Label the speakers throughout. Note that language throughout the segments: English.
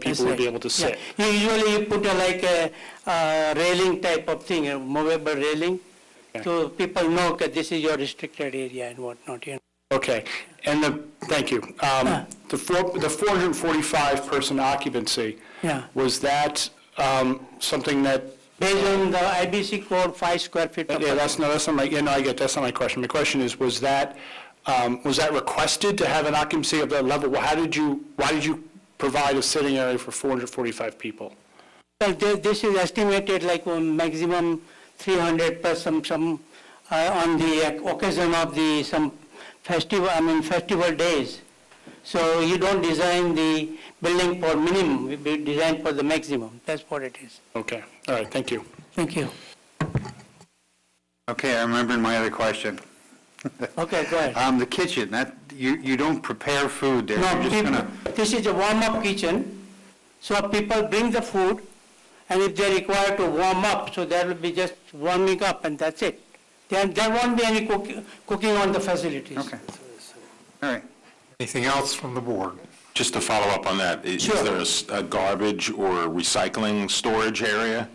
Speaker 1: people would be able to sit.
Speaker 2: Yeah. Usually you put a, like a uh, railing type of thing, a movable railing,
Speaker 1: Okay.
Speaker 2: so people know that this is your restricted area and whatnot, you know.
Speaker 1: Okay, and the, thank you. Um, The four, the 445 person occupancy,
Speaker 2: Yeah.
Speaker 1: was that um, something that,
Speaker 2: Based on the IBC code, five square feet. per
Speaker 1: yeah, that's, no, that's not my, yeah, no, I get, that's not my question. My question is, was that, um, was that requested to have an occupancy of that level? How did you, why did you provide a sitting area for 445 people?
Speaker 2: Well, thi- this is estimated like um, maximum 300 per some, some, uh, on the occasion of the, some festival, I mean, festival days. So you don't design the building for minimum, we be- design for the maximum, that's what it is.
Speaker 1: Okay, all right, thank you.
Speaker 2: Thank you.
Speaker 3: Okay, I remembered my other question.
Speaker 2: Okay, go ahead.
Speaker 3: Um, the kitchen, that, you, you don't prepare food there,
Speaker 2: No,
Speaker 3: you're just
Speaker 2: people,
Speaker 3: gonna,
Speaker 2: this is a warm-up kitchen, so people bring the food, and if they require to warm up, so that will be just warming up, and that's it. Then there won't be any cooking, cooking on the facilities.
Speaker 3: okay. All right.
Speaker 4: Anything else from the board?
Speaker 5: Just to follow up on that, i- is
Speaker 2: Sure.
Speaker 5: there a s- a garbage or recycling storage area?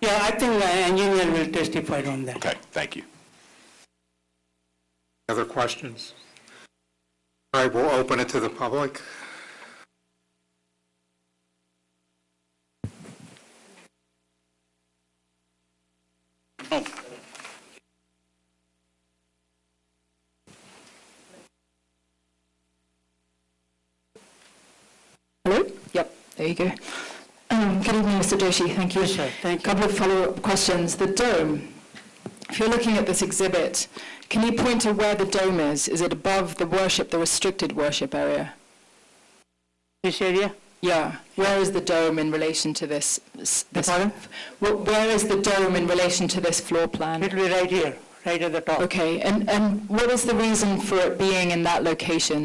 Speaker 2: Yeah, I think the engineer will testify on that.
Speaker 5: Okay, thank you.
Speaker 4: Other questions? All right, we'll open it to the public.
Speaker 6: Hello? Yep. There you go. Um, Good evening, Mr. Doshi. Thank you.
Speaker 2: Yes, sir. Thank you.
Speaker 6: Couple of follow-up questions. The dome, if you're looking at this exhibit, can you point to where the dome is? Is it above the worship, the restricted worship area?
Speaker 2: This area,
Speaker 6: Yeah. Where is the dome in relation to this? this-
Speaker 2: pardon?
Speaker 6: Wh- Where is the dome in relation to this floor plan?
Speaker 2: it will be right here, right at the top.
Speaker 6: Okay, and and what is the reason for it being in that location?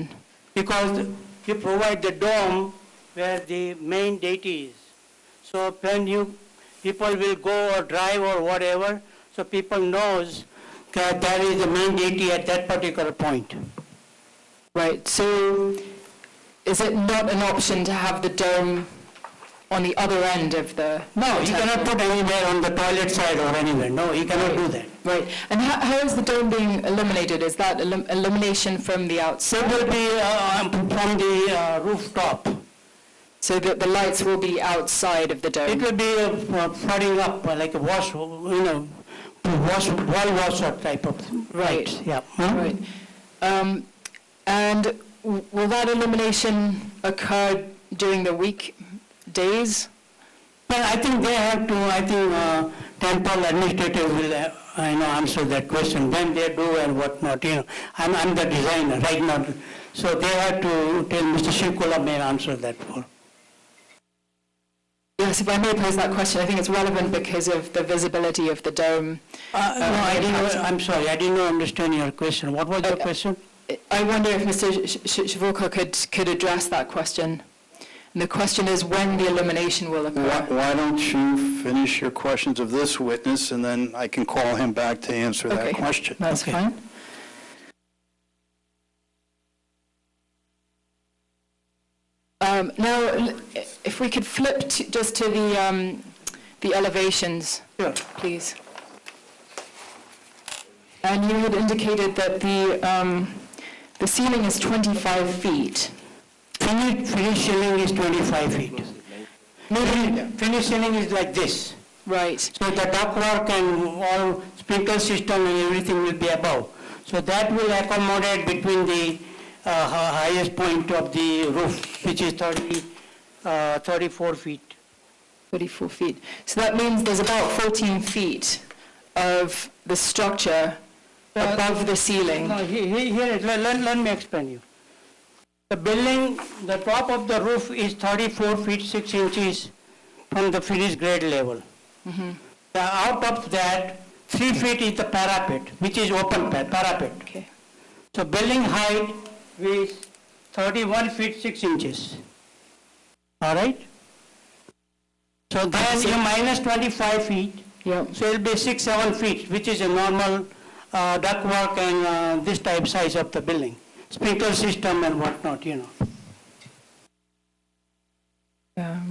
Speaker 2: Because you provide the dome where the main deity is. So when you, people will go or drive or whatever, so people knows that that is the main deity at that particular point.
Speaker 6: Right, so is it not an option to have the dome on the other end of the?
Speaker 2: No, you cannot
Speaker 6: temple?
Speaker 2: put anywhere on the toilet side or anywhere, no, you cannot do that.
Speaker 6: Right, and how, how is the dome being illuminated? Is that illu- illumination from the
Speaker 2: It
Speaker 6: outside?
Speaker 2: will be uh, from the uh, rooftop.
Speaker 6: So that the lights will be outside of the
Speaker 2: It
Speaker 6: dome?
Speaker 2: will be uh, flooding up, uh, like a wash, you know, wash, wall washer type of.
Speaker 6: Right.
Speaker 2: lights, Yeah. Hmm?
Speaker 6: Right. Um, and w- will that illumination occur during the weekdays?
Speaker 2: But I think they have to, I think uh, temple administrative will, uh, you know, answer that question, when they do and whatnot, you know. I'm, I'm the designer right now, so they have to tell Mr. Shivkula may answer that for.
Speaker 6: Yes, if I may pose that question, I think it's relevant because of the visibility of the dome.
Speaker 2: Uh, No, I didn't, know- I'm sorry, I didn't understand your question. What was your
Speaker 6: Uh,
Speaker 2: question?
Speaker 6: I wonder if Mr. Sh- Sh- Shivoka could, could address that question. And the question is when the illumination will
Speaker 7: Why
Speaker 6: occur.
Speaker 7: why don't you finish your questions of this witness, and then I can call him back to answer that
Speaker 6: Okay,
Speaker 7: question?
Speaker 6: That's
Speaker 2: Okay.
Speaker 6: fine. Um, Now, l- if we could flip to- just to the, um, the elevations,
Speaker 2: Sure.
Speaker 6: please. And you had indicated that the, um, the ceiling is 25 feet.
Speaker 2: Finish, finish ceiling is 25 feet. Finish- Finish ceiling is like this.
Speaker 6: Right.
Speaker 2: So the ductwork and all sprinkler system and everything will be above. So that will accommodate between the uh, hi- highest point of the roof, which is 30, uh, 34 feet.
Speaker 6: 34 feet. So that means there's about 14 feet of the structure
Speaker 2: Uh,
Speaker 6: above the ceiling.
Speaker 2: No, he- he- here, it- let, let- let me explain you. The building, the top of the roof is 34 feet 6 inches from the finished grade level. The Out of that, 3 feet is the parapet, which is open pa- parapet.
Speaker 6: Okay.
Speaker 2: So building height is 31 feet 6 inches. All right? So then you minus 25 feet,
Speaker 6: Yep.
Speaker 2: so it'll be 6, 7 feet, which is a normal uh, ductwork and uh, this type size of the building, sprinkler system and whatnot, you know.
Speaker 6: Yeah.